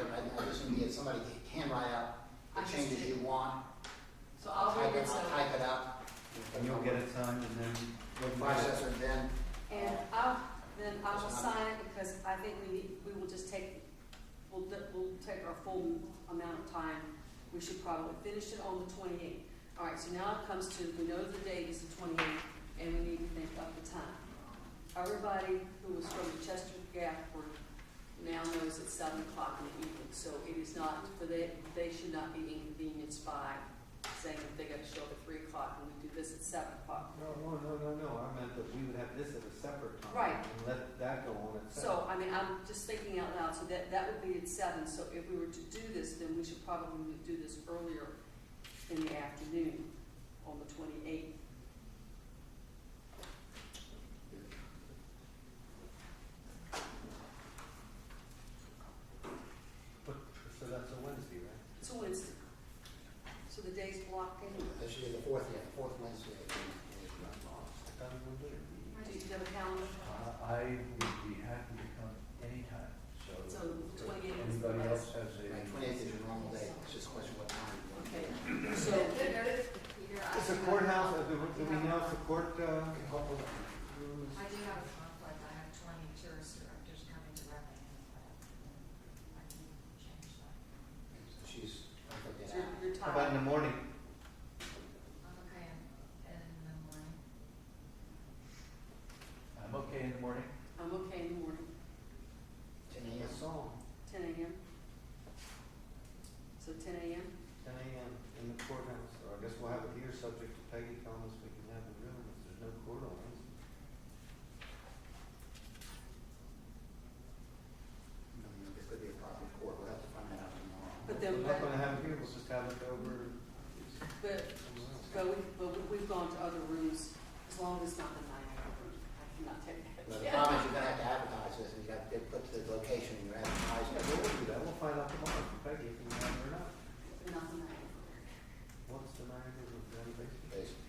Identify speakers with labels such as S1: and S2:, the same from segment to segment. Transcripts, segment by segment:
S1: can be, if somebody can write out
S2: I
S1: the
S2: just
S1: changes you
S2: did.
S1: want,
S2: So
S1: I'll
S2: I'll
S1: type
S2: read
S1: it,
S2: this
S1: I'll
S2: out,
S1: type it up.
S3: And you'll get it signed and then. we'll
S1: The
S3: get it.
S1: Processor then,
S2: and I'll, then I will sign it because I think we need, we will just take, we'll, d- we'll take our full amount of time. We should probably finish it on the twenty-eighth. All right, so now it comes to, we know the date is the twenty-eighth, and we need to think of the time. Everybody who was from the Chester Gap were now knows it's seven o'clock in the evening, so it is not, for they, they should not be inconvenienced by saying that they gotta show up at three o'clock and we do this at seven o'clock.
S3: No, no, no, no, no, I meant that we would have this at a separate time.
S2: Right.
S3: And let that go on itself.
S2: So, I mean, I'm just thinking out loud, so that, that would be at seven, so if we were to do this, then we should probably do this earlier in the afternoon on the twenty-eighth.
S3: But, so that's a Wednesday, right?
S2: It's a Wednesday. So the day's blocked anyway.
S1: that should be the fourth, yeah, the fourth Wednesday. of the-
S3: That would be it.
S2: Do you have a calendar?
S4: Uh, I would be happy to come anytime, so.
S2: So
S4: if
S2: 28 is the
S4: Anybody else
S2: last.
S4: has a.
S1: Right, twenty-eighth is your normal day, it's just a question of what time you want.
S2: Okay, so,
S3: Is the courthouse, uh, do we- do we know if the court, uh, rules?
S5: I do have a conflict, I have twenty tourist directors coming to Rappahannock, but I can change that.
S1: So She's, I forget.
S2: so you're
S3: How about in the
S2: tired.
S3: morning?
S5: I'm okay in, in the morning.
S4: I'm okay in the morning.
S2: I'm okay in the morning,
S1: Ten AM.
S3: Song,
S2: ten AM. So ten AM?
S3: ten AM in the courthouse, or I guess we'll have it here, subject to Peggy telling us we can have the room, if there's no court on Wednesday.
S1: It could be a property court, we'll have to find that out tomorrow.
S2: But then-
S3: We're not gonna have it here, we'll just have it over
S2: But,
S3: somewhere else.
S2: but we, but we- we've gone to other rooms, as long as it's not the nine hour room, I cannot take that.
S1: But the problem is you're gonna have to advertise this, and you have to put the location, you're
S3: Yeah,
S1: advertising.
S3: we'll do that, we'll find out tomorrow from Peggy if we have it or not.
S2: But Not the nine hour
S3: What's the matter with the renovation?
S1: Basically.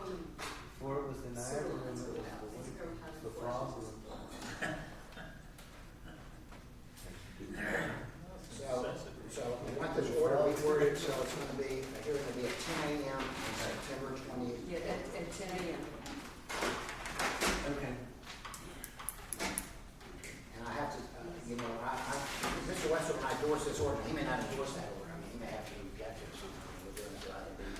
S2: room.
S3: Before it was the
S2: So,
S3: Niagara room, it
S2: that's
S3: was
S2: what happens.
S3: the,
S2: Everyone has
S3: the
S2: questions.
S3: Frog room.
S1: So, so we want this order reworded, so it's gonna be, a hearing will be at ten AM on September twentieth.
S2: Yeah, at, at ten AM.
S3: Okay.
S1: And I have to, uh, you know, I, I, Mr. Westbrook, when I endorse this order, he may not endorse that order, I mean, he may have to reject it or something, we're doing it, so I don't think,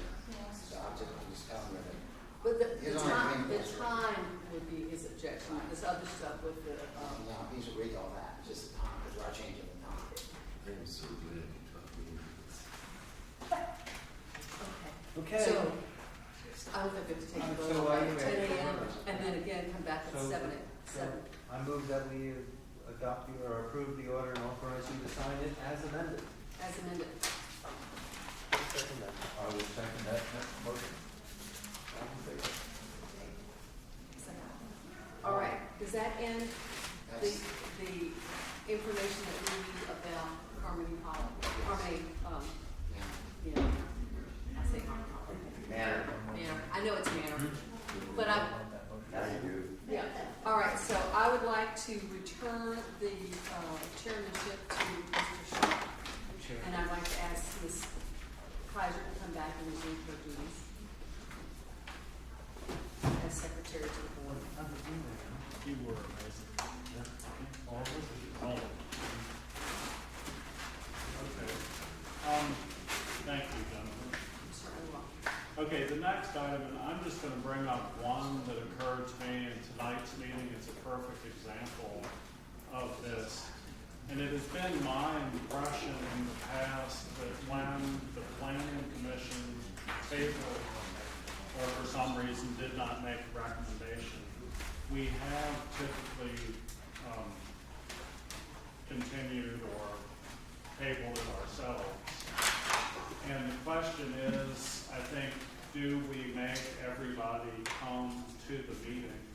S1: so I'm just, I'm just telling you that.
S2: But the, the
S1: Here's my green
S2: time, the
S1: list.
S2: time would be his objection, this other stuff with the,
S1: Um,
S2: um,
S1: now, he's agreed to all that, it's just the time, because we're changing the time.
S6: I am so glad you taught me this.
S2: okay.
S3: Okay.
S2: So, I don't think we have to take a
S3: Um,
S2: vote
S3: so
S2: on
S3: I
S2: that, ten
S3: make-
S2: AM, and then again, come back at
S3: So-
S2: seven,
S3: so
S2: seven.
S3: I move that we adopt the, or approve the order and authorize you to sign it as amended.
S2: As amended.
S3: Second that.
S4: I will second that motion.
S2: All right, does that end the,
S1: That's,
S2: the information that we need about Harmony Hall, Harmony, um,
S1: yeah,
S2: you know, I say Harmony Hall.
S1: matter.
S2: Manor, I know it's Manor, but I,
S1: Now you
S2: yeah, all right, so I would like to return the, uh, chairmanship to Mr. Shaw. And I'd like to ask Ms. Kaiser to come back and resume her duties as secretary to the board.
S7: You were amazing.
S3: All of us?
S7: All of Okay. Um, thank you, gentlemen.
S2: I'm sorry, I'm wrong.
S7: Okay, the next item, and I'm just gonna bring up one that occurred to me in tonight's meeting, it's a perfect example of this. And it has been my impression in the past that when the planning commission tabled or for some reason did not make a recommendation, we have typically, um, continued or tabled it ourselves. And the question is, I think, do we make everybody come to the meeting?